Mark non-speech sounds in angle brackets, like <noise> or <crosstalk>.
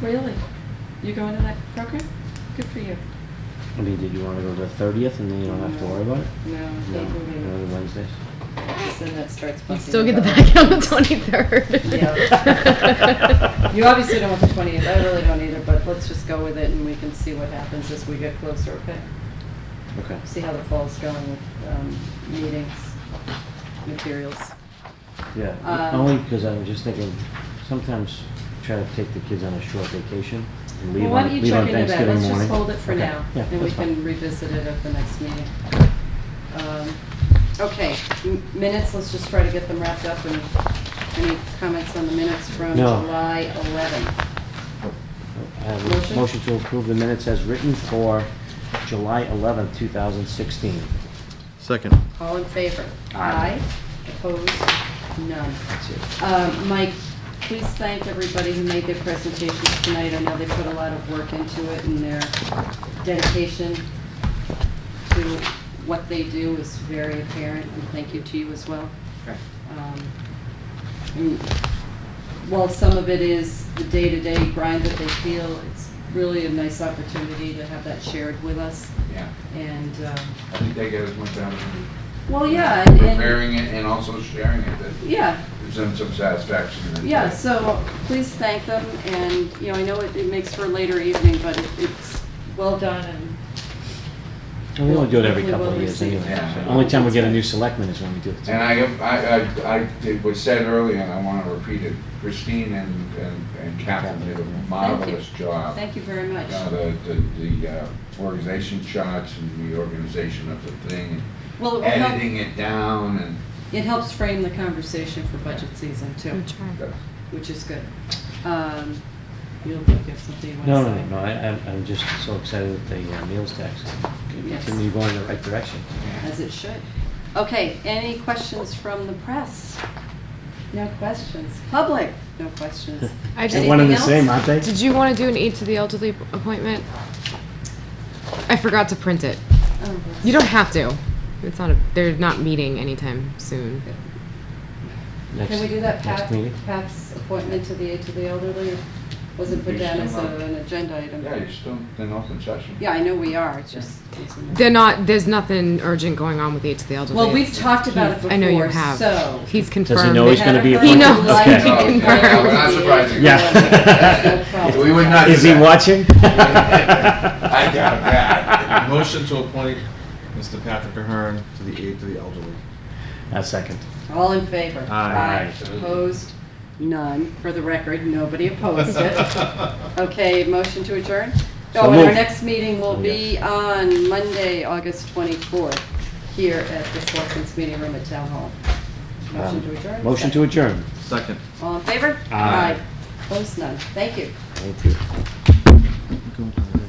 Really? You going to that program? Good for you. I mean, did you want to go to the thirtieth and then you don't have to worry about it? No, No, no, the Wednesdays. So then it starts You bumping. still get the about- back on the twenty-third. Yeah. You obviously don't want the twentieth, I really don't either, but let's just go with it and we can see what happens as we get closer, okay? Okay. See how the fall's going with, um, meetings, materials. Yeah, Um, only because I'm just thinking, sometimes try to take the kids on a short vacation and leave Well, why on, don't you leave on check into that, Thanksgiving let's just morning. hold it for Okay. now, Yeah, and we that's can fine. revisit it at the next meeting. Um, Okay, m- minutes, let's just try to get them wrapped up, and any comments on the minutes from No. July 11? I have a Motion? Motion to approve the minutes as written for July eleventh, two thousand sixteen. Second. All in favor? Aye. Opposed? None. That's it. Um, Mike, please thank everybody who made their presentations tonight. I know they put a lot of work into it and their dedication to what they do is very apparent, and thank you to you as well. Um, and While some of it is the day-to-day grind that they feel, it's really a nice opportunity to have that shared with us, Yeah, and, um, I think that goes much out in well, yeah, and- and... preparing it and also sharing it, that Yeah, gives them some satisfaction. in it. yeah, so please thank them, and, you know, I know it, it makes for a later evening, but it- it's well done and. And we only do it every Hopefully couple of we'll years receive anyway. it. so Only time we get a new selectman is when we do it. And I, I, I, I- it was said earlier, and I want to repeat it, Christine and, and and Catherine did a marvelous job. Thank you very much. Uh, The, the, the uh, organization charts and the organization of the thing, Well, it will and help, editing it down and. it helps frame the conversation for budget season too, which is good. Um, you look like you have something you No, wanna no, say. no, no, I, I'm- I'm just so excited that the uh, meals tax Yes. continue going in the right direction. As it should. Okay, any questions from the press? No questions. Public, no questions. I <laughs> just- They're one and the Anything same, else? aren't they? Did you wanna do an aid to the elderly appointment? I forgot to print it. Oh, You don't have to. It's not a, they're not meeting anytime soon. Next- Can we do that Next Pat, meeting? Pat's appointment to the aid to the elderly? or Was it put You're down as still a- on. uh, an agenda item? Yeah, you're still in open session. Yeah, I know we are, it's just. They're not, there's nothing urgent going on with aid to the elderly. Well, we've It's- talked about it he's- I know you before, have. so- He's confirmed. Does he know he's that- gonna be He appointed? knows. Okay. He Okay. confirmed. Yeah, we're not surprised you <laughs> Yeah. Yeah. We would not do Is he that. <laughs> watching? <laughs> I doubt that. Motion to appoint Mr. Patrick Ahern to the aid to the elderly. A second. All in favor? Aye. Opposed? None. For the record, nobody opposed <laughs> it. Okay, motion to adjourn? So Oh, and our moved. next meeting will Oh, be on Monday, August 24th, here at the Selectmen's Meeting Room at Town Hall. Motion to adjourn? Um, Motion to adjourn. Second. All in favor? Aye. Opposed? None. Thank you. Thank you. Go on.